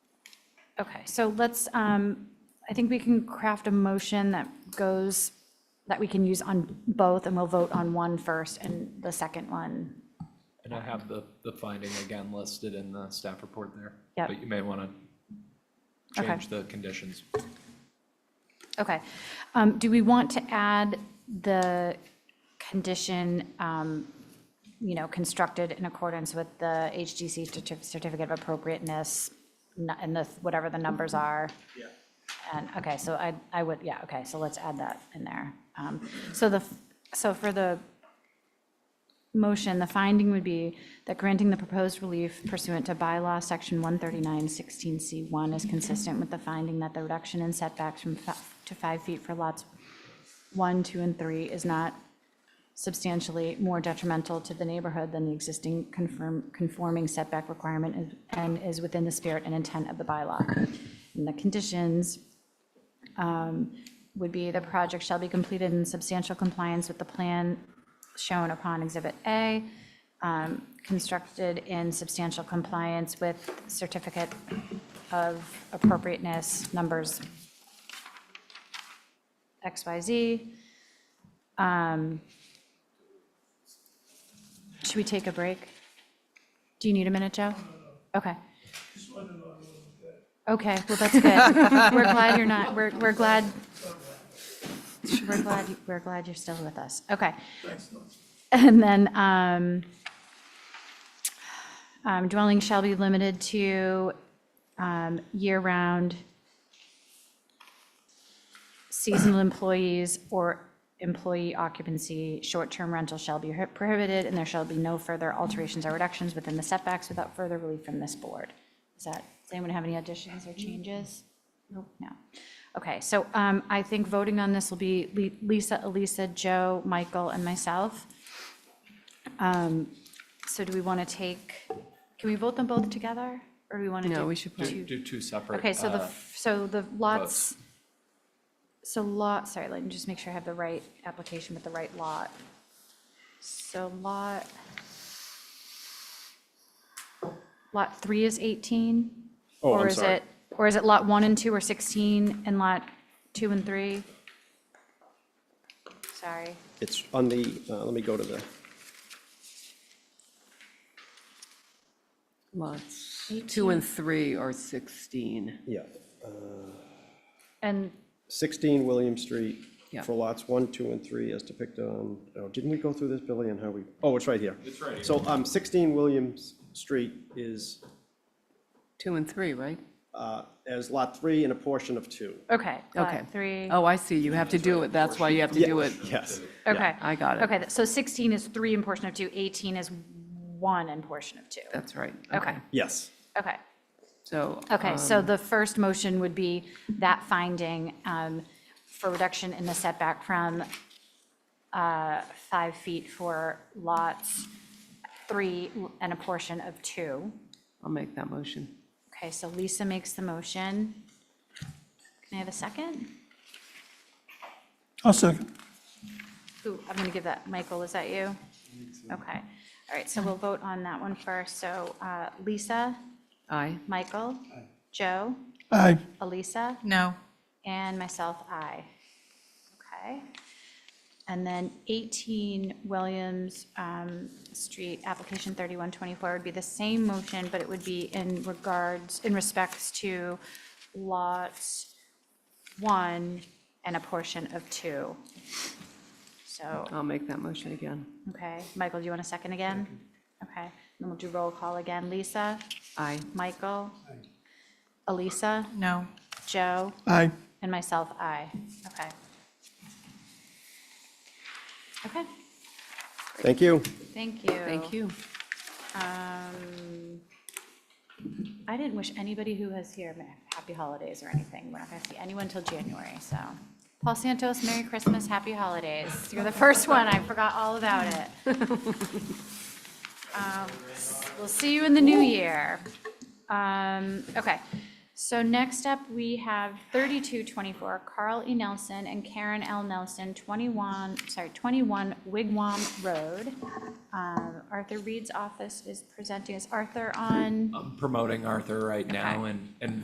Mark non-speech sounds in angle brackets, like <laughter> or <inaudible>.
Okay, so let's, um, I think we can craft a motion that goes, that we can use on both, and we'll vote on one first and the second one. And I have the, the finding again listed in the staff report there. Yep. But you may want to Okay. change the conditions. Okay. Um, Do we want to add the condition, um, you know, constructed in accordance with the HGC certi- certificate of appropriateness, nu- and the, whatever the numbers are? Yeah. And, okay, so I, I would, yeah, okay, so let's add that in there. Um, So the, f- so for the motion, the finding would be that granting the proposed relief pursuant to bylaw section 139-16C1 is consistent with the finding that the reduction in setbacks from fi- to five feet for lots one, two, and three is not substantially more detrimental to the neighborhood than the existing confirm, conforming setback requirement is- and is within the spirit and intent of the bylaw. And the conditions um, would be the project shall be completed in substantial compliance with the plan shown upon Exhibit A, um, constructed in substantial compliance with certificate of appropriateness numbers XYZ. Um, Should we take a break? Do you need a minute, Joe? Okay. Okay, well, that's good. We're glad you're not, we're, we're glad, we're glad, you- we're glad you're still with us. Okay. <laughs> And then, um, um, dwelling shall be limited to, um, year-round seasonal employees or employee occupancy, short-term rental shall be prohibited, and there shall be no further alterations or reductions within the setbacks without further relief from this board. Is that, does anyone have any additions or changes? Nope. No. Okay, so um, I think voting on this will be Li- Lisa, Elisa, Joe, Michael, and myself. Um, So do we want to take, can we vote them both together, or do we want to do? No, we should put- two? Do, do two separate. Okay, so the, uh, f- so the lots, so lot, sorry, let me just make sure I have the right application with the right lot. So lot, lot three is 18? Oh, Or I'm is sorry. it, or is it lot one and two are 16 and lot two and three? Sorry, It's on the, uh, let me go to the, Lots two and three are 16. yeah, and, 16 William Street Yeah. for lots 1, 2, and 3 as depicted on, oh, didn't we go through this, Billy, and how we, oh, it's right here. It's right here. So um, 16 Williams Street is Two and three, right? uh, as lot 3 and a portion of 2. okay, Okay. lot three, Oh, I see. You have to do it. That's why you have to do it. Yes. okay. I got it. Okay, th- so 16 is three and portion of two, 18 is one and portion of two. That's right. Okay, Yes. okay. So. Okay, um, so the first motion would be that finding um, for reduction in the setback from uh, five feet for lots three and a portion of two. I'll make that motion. Okay, so Lisa makes the motion. Can I have a second? I'll second. Who, I'm going to give that, Michael, is that you? Okay, all right, so we'll vote on that one first. So uh, Lisa, Aye. Michael, Joe, Aye. Elisa? No. And myself, I. Okay. And then 18 Williams um, Street, application 3124 would be the same motion, but it would be in regards, in respects to lots one and a portion of two. So, I'll make that motion again. okay, Michael, do you want a second again? Okay, then we'll do roll call again. Lisa, Aye. Michael, Elisa, No. Joe? Aye. And myself, aye. Okay. Okay, Thank you. thank you. Thank you. Um, I didn't wish anybody who was here ma- happy holidays or anything. We're not going to see anyone till January, so. Paul Santos, Merry Christmas, Happy Holidays. You're the first one. I forgot all about it. Um, We'll see you in the new year. Um, okay, so next up, we have thirty-two twenty-four Carl E. Nelson and Karen L. Nelson, twenty-one, sorry, twenty-one Wigwam Road. Um, Arthur Reed's office is presenting. Is Arthur on? uh, I'm promoting Arthur right now and, and